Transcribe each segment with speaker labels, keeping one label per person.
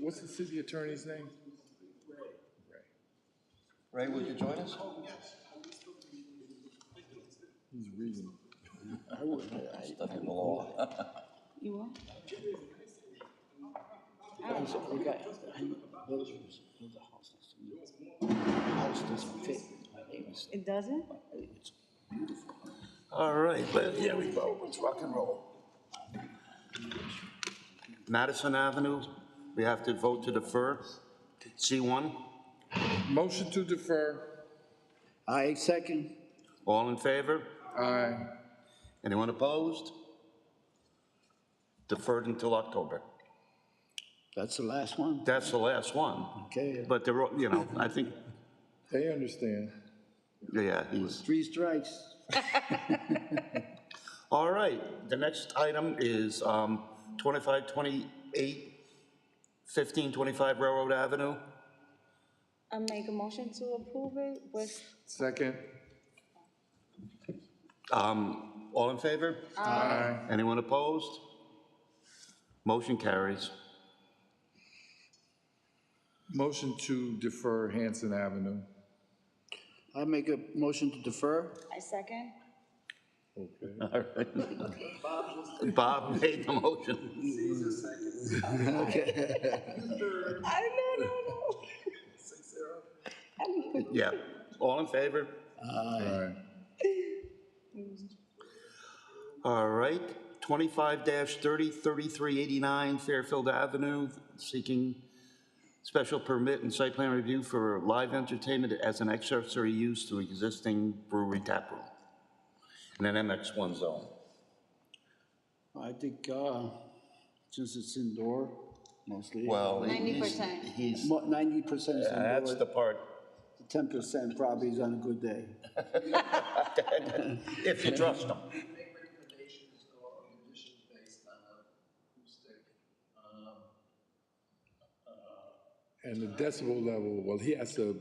Speaker 1: What's the city attorney's name?
Speaker 2: Ray, would you join us?
Speaker 1: He's reading.
Speaker 2: Stuck in the law.
Speaker 3: You will?
Speaker 4: We got, those was, those are houses. House doesn't fit. My neighbor's,
Speaker 3: It doesn't?
Speaker 4: it's
Speaker 5: All right, let- here we go, let's rock and roll. Madison Avenue, we have to vote to defer, C1,
Speaker 1: Motion to defer.
Speaker 4: I second.
Speaker 5: all in favor?
Speaker 1: Aye.
Speaker 5: Anyone opposed? Deferred until October.
Speaker 4: That's the last one.
Speaker 5: That's the last one,
Speaker 4: Okay.
Speaker 5: but they're, all- you know, I think,
Speaker 1: They understand.
Speaker 5: yeah, he's.
Speaker 4: Three strikes.
Speaker 5: All right, the next item is um, 2528, 1525 Railroad Avenue.
Speaker 3: I make a motion to approve it with,
Speaker 1: Second.
Speaker 5: Um, All in favor?
Speaker 1: Aye.
Speaker 5: Anyone opposed? Motion carries.
Speaker 1: Motion to defer Hanson Avenue.
Speaker 4: I make a motion to defer.
Speaker 3: I second.
Speaker 5: All right. Bob made the motion.
Speaker 3: I no, no, no.
Speaker 5: Yeah, all in favor?
Speaker 1: Aye.
Speaker 5: All right, 25-30, 3389 Fairfield Avenue, seeking special permit and site plan review for live entertainment as an accessory use to existing brewery tap room in an MX1 zone.
Speaker 4: I think, uh, since it's indoor mostly.
Speaker 5: Well, he-
Speaker 3: 90%.
Speaker 5: he's, he's-
Speaker 4: Ninety percent is
Speaker 5: that's the
Speaker 4: indoor,
Speaker 5: part,
Speaker 4: ten percent probably is on a good day.
Speaker 5: if you trust him.
Speaker 6: make recommendations or conditions based on acoustic, um,
Speaker 1: And the decibel level, well, he has to,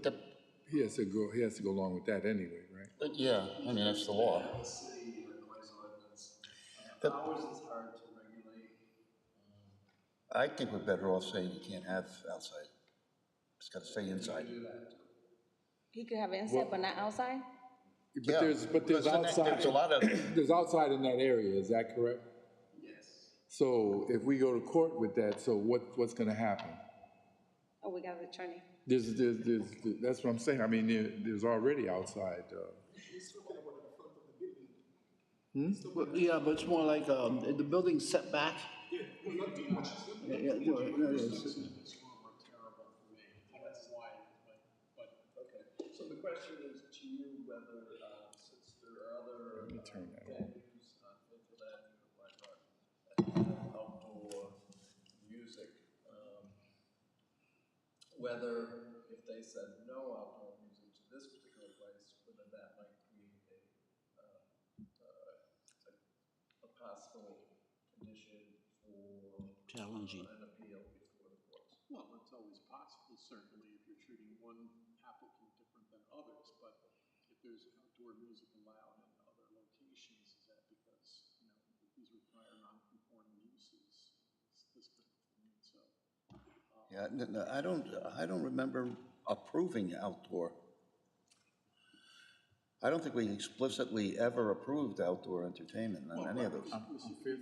Speaker 1: he has to go, he has to go along with that anyway, right?
Speaker 5: But yeah, I mean, that's the law.
Speaker 6: the city and noise ordinance. Uh, Hours is hard to regulate.
Speaker 5: I think we're better off saying you can't have outside. It's got to stay inside.
Speaker 3: He could have it inside, but not outside?
Speaker 5: Yeah,
Speaker 1: But there's, but there's
Speaker 5: because
Speaker 1: outside,
Speaker 5: then There's a lot of,
Speaker 1: there's outside in that area, is that correct?
Speaker 6: Yes.
Speaker 1: So if we go to court with that, so what, what's gonna happen?
Speaker 3: Oh, we got the attorney.
Speaker 1: There's, there's, there's, that's what I'm saying, I mean, there, there's already outside, uh,
Speaker 4: Well, Yeah, but it's more like, um, the building setback. Yeah, yeah, no, no, it's-
Speaker 6: This one were terrible for me, that's why, but, but, okay. So the question is to you whether, uh, since there are other. uh, Let me
Speaker 1: turn that
Speaker 6: Venues on Fifth Avenue, like, uh, outdoor music, um, whether if they said no outdoor music to this particular place, whether that might create a, uh, uh, a a possible condition for
Speaker 4: Challenging.
Speaker 6: an appeal before the courts.
Speaker 7: Well, it's always possible, certainly, if you're treating one applicant different than others, but if there's outdoor music allowed in other locations, is that because, you know, these were prior non-conforming uses? It's This could, so,
Speaker 5: yeah, n- n- I don't, I don't remember approving outdoor. I don't think we explicitly ever approved outdoor entertainment on any of those.
Speaker 7: this is, there's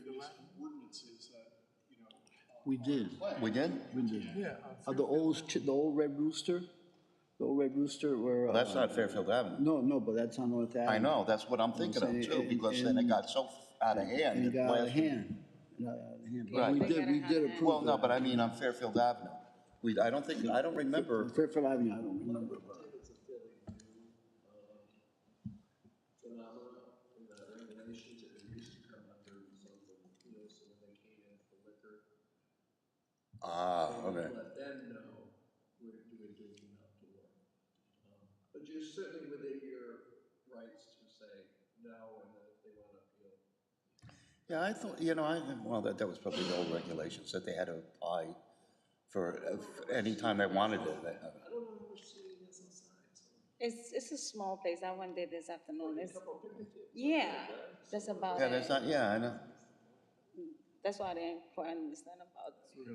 Speaker 7: ordinances that, you know,
Speaker 4: We did,
Speaker 5: We did?
Speaker 4: we did. Yeah. the old, ch- the old Red Rooster, the old Red Rooster were.
Speaker 5: Well,
Speaker 4: uh,
Speaker 5: that's not Fairfield Avenue.
Speaker 4: No, no, but that's on North Avenue.
Speaker 5: I know, that's what I'm thinking of too, because then it got so out of hand.
Speaker 4: And it
Speaker 5: it
Speaker 4: got out of
Speaker 5: lasted-
Speaker 4: hand, It got out of hand. But
Speaker 5: Right.
Speaker 4: We
Speaker 5: They
Speaker 4: did, we
Speaker 3: gotta have
Speaker 4: did
Speaker 3: that.
Speaker 4: approve.
Speaker 5: Well, no,
Speaker 4: that.
Speaker 5: but I mean on Fairfield Avenue. We, I don't think, I don't remember
Speaker 4: Fairfield Avenue, I don't remember. but-
Speaker 6: Phenomena in the regulations that used to come under zoning appeals when they came in for liquor.
Speaker 5: Ah, okay.
Speaker 6: Let them know we're doing drinking outdoor. Um, But you're certainly within your rights to say no, and then if they want to appeal,
Speaker 5: Yeah, I thought, you know, I, well, that, that was probably the old regulations that they had to apply for uh, for any time they wanted it. They-
Speaker 3: It's, it's a small place. I went there this afternoon. It's, yeah, that's about
Speaker 5: Yeah, there's
Speaker 3: it.
Speaker 5: not, yeah, I know.
Speaker 3: That's why I didn't quite understand about